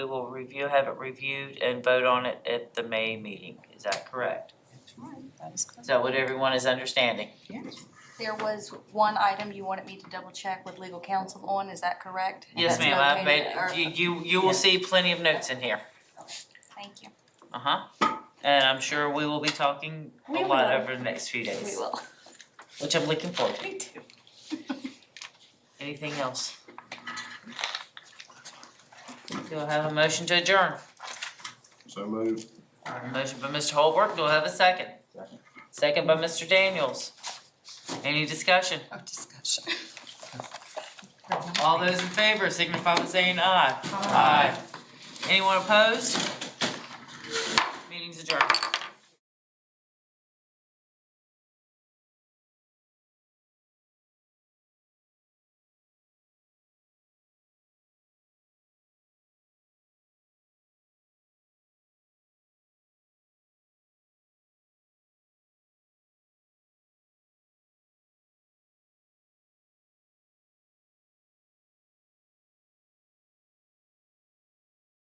We will review, have it reviewed and vote on it at the May meeting. Is that correct? That is Is correct. that what everyone is understanding? There was one item you wanted me to double check with legal counsel on, is that correct? And Yes, that's ma'am, I've located- or- made, you, you, you will Yes. see plenty of notes in here. Thank you. Uh-huh. And I'm sure we will be talking a We lot will. over the next few We days, will. which I'm looking forward to. Me too. Anything else? Do I have a motion to adjourn? So moved. A Motion by Mr. Holbrook, do I have a second? Second. Second by Mr. Daniels. Any discussion? No discussion. All those in favor signify by saying aye. Aye. Anyone opposed? Meeting's adjourned.